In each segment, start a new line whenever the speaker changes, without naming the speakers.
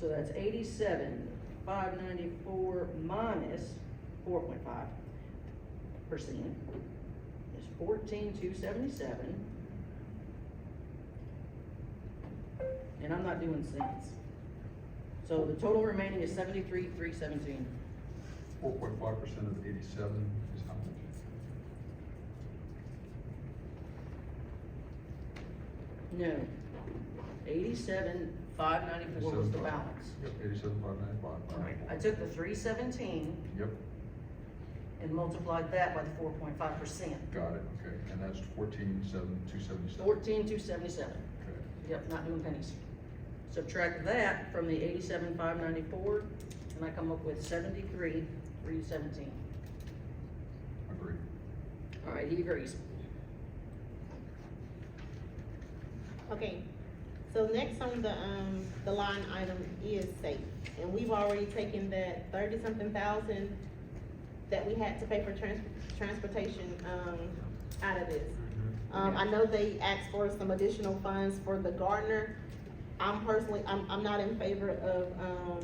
So that's eighty-seven, five ninety-four minus four point five percent is fourteen, two seventy-seven. And I'm not doing cents. So the total remaining is seventy-three, three seventeen.
Four point five percent of eighty-seven is how much?
No. Eighty-seven, five ninety-four was the
87,500.
balance.
Yep, eighty-seven, five ninety-five.
I took the three seventeen
Yep,
and multiplied that by the four point five percent.
got it, okay, and that's fourteen, seven, two seventy-seven.
Fourteen, two seventy-seven.
Okay,
Yep, not doing pennies. Subtract that from the eighty-seven, five ninety-four, and I come up with seventy-three, three seventeen.
agreed.
All right, he agrees.
Okay, so next on the, um, the line item is safe, and we've already taken that thirty-something thousand that we had to pay for trans- transportation, um, out of this. Um, I know they asked for some additional funds for the gardener. I'm personally, I'm, I'm not in favor of, um,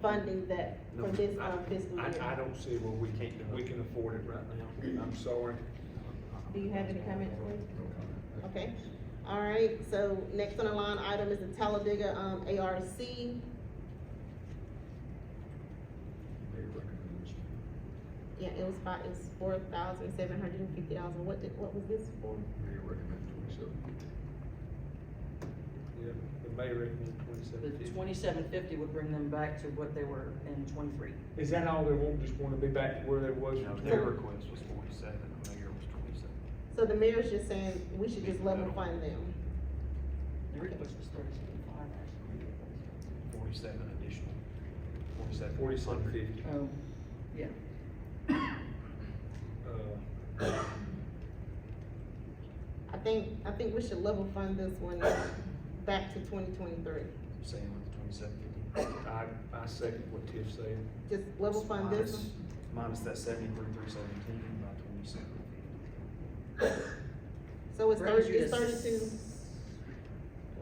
funding that
No,
for this,
I-
um, fiscal
I, I
year.
don't see where we can't, that we can afford it right now, I'm sorry.
Do you have any comments, please?
No comment.
Okay, all right, so next on the line item is the Talladega, um, ARC.
They recommend this.
Yeah, it was five, it was four thousand seven hundred and fifty dollars, what did, what was this for?
They recommend twenty-seven.
Yeah, the mayor recommended
The
twenty-seven fifty.
twenty-seven fifty would bring them back to what they were in twenty-three.
Is that all they want, just wanna be back to where they was?
No,
from?
their request was forty-seven, the mayor was twenty-seven.
So the mayor's just saying, we should just level fund them,
The request was thirty-seven, five
Forty-seven additional, forty-seven.
Forty-seven fifty.
Oh, yeah.
Uh,
I think, I think we should level fund this one back to twenty twenty-three.
Same with the twenty-seven fifty.
I, I second what Tiff said.
Just level fund this one,
Minus that seventy-three, three seventeen by twenty-seven fifty.
so it's
Brings
thirty,
you
it's
to
thirty-two,
s-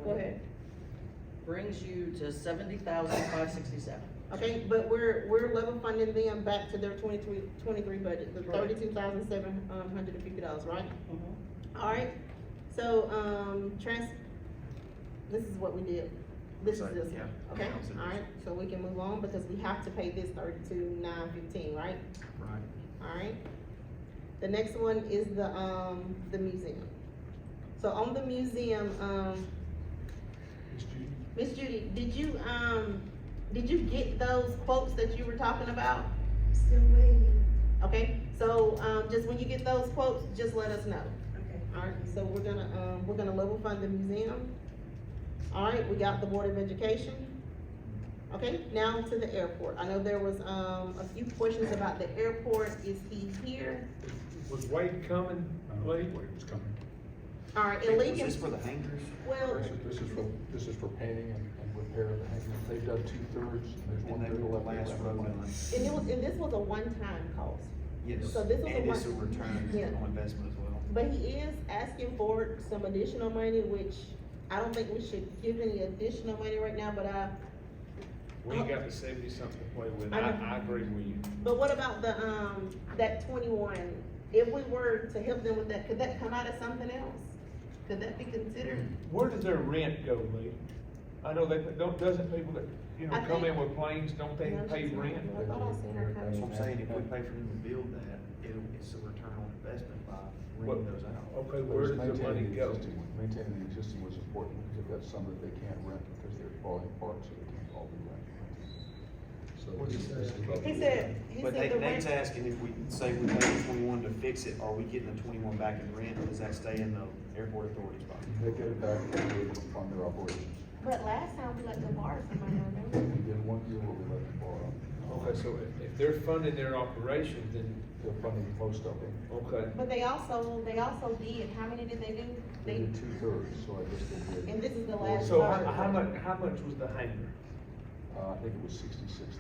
go ahead.
Brings you to seventy thousand, five sixty-seven.
Okay, but we're, we're level funding them back to their 2023 budget, the
Right.
thirty-two thousand seven hundred and fifty dollars, right?
Mm-hmm.
Alright, so, um, trans, this is what we did, this is
Sorry,
this one,
yeah.
okay?
Yeah, so this-
Alright, so we can move on because we have to pay this thirty-two nine fifteen, right?
Right.
Alright? The next one is the, um, the museum. So on the museum, um,
Ms. Judy?
Miss Judy, did you, um, did you get those quotes that you were talking about?
Still waiting,
Okay, so, um, just when you get those quotes, just let us know.
okay.
Alright, so we're gonna, um, we're gonna level fund the museum. Alright, we got the Board of Education. Okay, now to the airport. I know there was, um, a few questions about the airport. Is he here?
Was Wade coming late?
Wait, it's coming.
Alright, and
Was
Lincoln,
this for the hangers?
well,
This is, this is for, this is for painting and, and repair of the hangars. They've done two-thirds, and there's
And they
one-third
were the
left.
last road line.
and it was, and this was a one-time cost.
Yes,
So this was
and
the
it's a
one-
return
Yeah.
on investment as well.
But he is asking for some additional money, which I don't think we should give any additional money right now, but I,
We ain't got the seventy something to play with,
I know.
I, I agree with you.
but what about the, um, that twenty-one? If we were to help them with that, could that come out of something else? Could that be considered?
Where does their rent go, Lee? I know they, don't, doesn't people that, you know,
I
come in
think-
with planes, don't they pay rent?
I thought I seen her
That's what
coming.
I'm saying, if we pay for them to build that, it'll, it's a return on investment by renting
What-
those out.
But
Okay, where
it's
does the money
maintaining
go?
existing one. Maintaining the existing was important, because they've got some that they can't rent, because they're falling apart, so they can't all be rented. So
What'd
this
you
this
say?
is about-
He said, he
But
said
they,
the
Nate's
rent,
asking if we, say we pay the twenty-one to fix it, are we getting the twenty-one back in rent, or does that stay in the airport authority's pocket?
They get it back, they're able to fund their operations.
But last time we let the bar come out, remember?
We did one year where we let them borrow.
Okay, so if, if they're funding their operations, then,
They're funding most of them.
okay.
but they also, they also did, how many did they do?
They
They,
did two-thirds, so I guess they did.
and this is the last
So
part.
how, how much, how much was the hangar?
Uh, I think it was sixty-six